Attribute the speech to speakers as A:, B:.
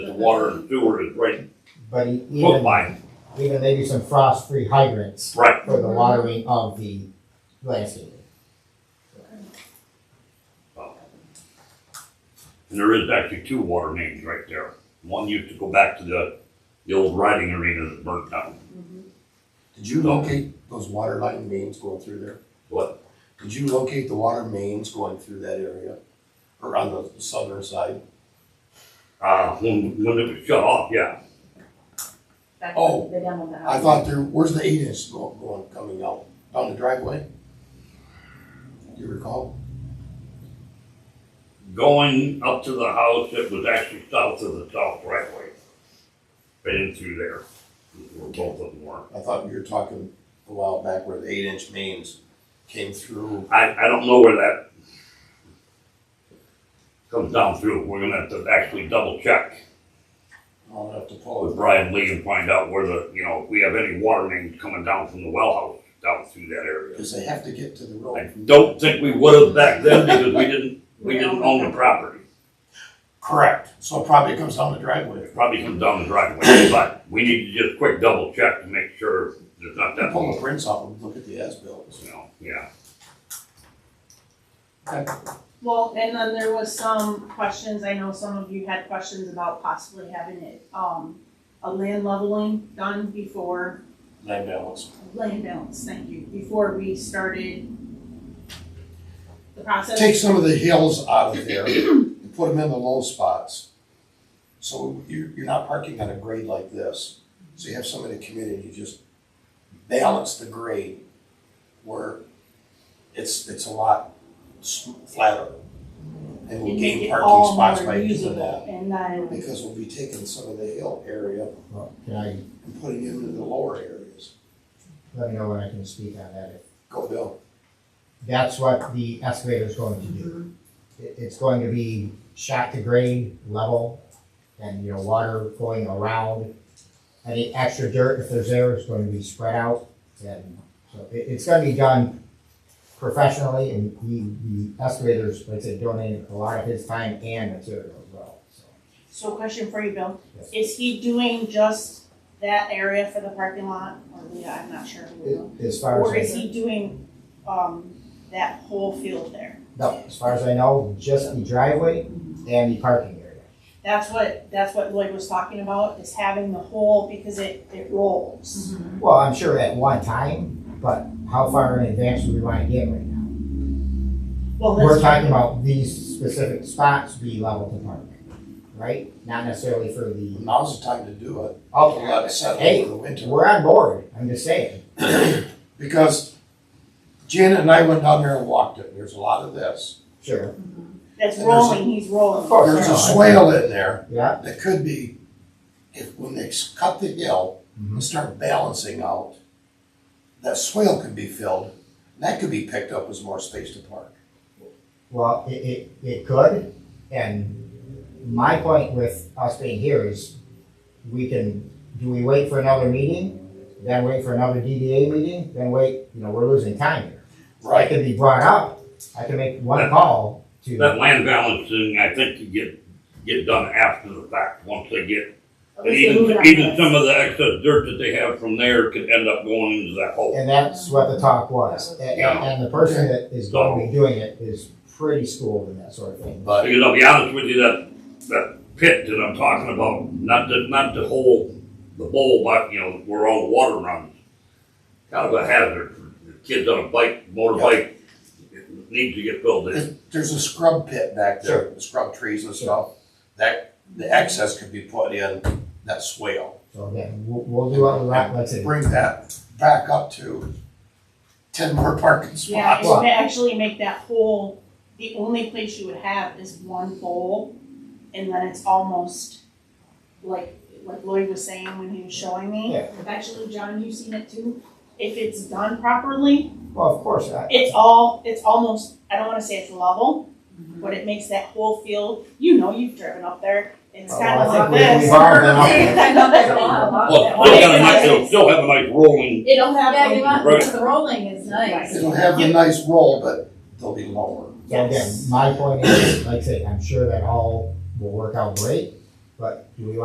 A: water and sewer is right
B: But e-
A: hook
B: even,
A: line.
B: even maybe some frost-free hydrants
A: Right.
B: for the watering of the landscaping.
A: And there is actually two water mains right there. One used to go back to the, the old riding arena that burnt down.
C: Did you locate those water line mains going through there?
A: What?
C: Did you locate the water mains going through that area? Or on the southern side?
A: Uh, when, when it was shut off, yeah.
D: Back
C: Oh,
D: the demo
E: Uh,
D: that
C: I thought there, where's the eight inch go- going, coming out? Down the driveway? Do you recall?
A: Going up to the house, it was actually south of the south driveway. Right in through there, where both of them were.
C: I thought you were talking a while back where the eight inch mains came through.
A: I, I don't know where that comes down through. We're gonna have to actually double check
C: I'll have to
A: with
C: pull it.
A: Brian Lee and find out where the, you know, if we have any water mains coming down from the well house down through that area.
C: Cause they have to get to the
A: I
C: road.
A: don't think we would have back then because we didn't, we didn't own the property.
C: Correct. So it probably comes down the driveway.
A: It probably comes down the driveway, but we need to just quick double check to make sure there's not that
C: Pull the
A: much,
C: prints off and look at the as-bills.
A: you know, yeah.
E: Well, and then there was some questions, I know some of you had questions about possibly having it, um, a land leveling done before,
C: Land balance.
E: land balance, thank you, before we started the process.
C: Take some of the hills out of there and put them in the low spots. So you, you're not parking on a grade like this. So you have somebody come in and you just balance the grade where it's, it's a lot s- flatter. And we'll
E: And make it
C: gain
E: all
C: parking spots
E: more
C: by doing
E: usable,
C: that.
E: And then,
C: Because we'll be taking some of the hill area
B: Well, Can I,
C: and putting it into the lower areas.
B: let me know when I can speak on that. If
C: Go Bill.
B: That's what the excavator is going to do. It, it's going to be shot to grade, level, and, you know, water going around. Any extra dirt, if there's there, is going to be spread out. And so it, it's gonna be done professionally and the, the excavators, like I said, donated a lot of his time and material as well, so.
E: so question for you, Bill,
B: Yes.
E: is he doing just that area for the parking lot, or Leah, I'm not sure. who will.
B: It- As far as.
E: Or
B: I-
E: is he doing, um, that whole field there?
B: No, as far as I know, just the driveway and the parking area.
E: That's what, that's what Lloyd was talking about, is having the whole, because it, it rolls.
C: Mm-hmm.
B: Well, I'm sure at one time, but how far in advance do we want to get right now?
E: Well,
B: We're
E: that's,
B: talking about these specific spots be level to park, right? Not necessarily for the,
C: Now's the time to do it. We'll
B: oh,
C: let it settle
B: Hey,
C: over the winter.
B: we're on board, I'm just saying.
C: because Janet and I went down there and walked it. There's a lot of this.
B: Sure,
E: that's
C: and there's a-
E: rolling, he's rolling.
B: Of course.
C: There's
B: no,
C: a
B: I-
C: swale in there
B: yeah,
C: that could be, if when they s- cut the hill and start balancing out, that swale could be filled. And that could be picked up as more space to park.
B: well, it, it, it could, and my point with us being here is we can, do we wait for another meeting? Then wait for another DDA meeting, then wait, you know, we're losing time here. I
C: Right.
B: can be brought up, I can make one call
A: That
B: to,
A: land balancing, I think you get, get done after the fact, once they get,
D: At
A: and
D: least they're moving
A: even,
D: on
A: even
D: this.
A: some of the excess dirt that they have from there could end up going into that hole.
B: and that's what the talk was. And, and- and the person that is gonna be doing it is pretty schooled in that sort of thing.
C: But
A: Because I'll be honest with Uh, you, that, that pit that I'm talking about, not the, not the whole, the bowl, but, you know, where all the water runs. Kind of a hazard for the kids on a bike, motorbike, it needs to get filled in.
C: it- there's a scrub pit back there, the scrub trees and stuff. That, the excess could be put in that swale.
B: So again, we'll, we'll do what we want, let's say,
C: Bring that back up to ten more parking spots.
E: Yeah, and
B: Well-
E: to actually make that whole, the only place you would have is one bowl, and then it's almost like, like Lloyd was saying when he was showing me.
B: Yeah.
E: Actually, John, you've seen it too, if it's done properly,
B: well, of course, I,
E: it's all, it's almost, I don't wanna say it's level, but it makes that whole field, you know, you've driven up there, it's
B: well,
E: kinda
B: I
E: like
B: think we-
E: this.
B: we've all been up there.
E: I know that's
D: a lot, a lot.
A: Well,
E: that
A: they'll have a
E: one.
A: nice, they'll still have a nice rolling,
D: It'll have,
E: Yeah, you
A: want-
D: the rolling is nice.
C: It'll have a nice roll, but they'll be lower.
B: So again, my point is, like I say, I'm sure that all will work out great, but do we want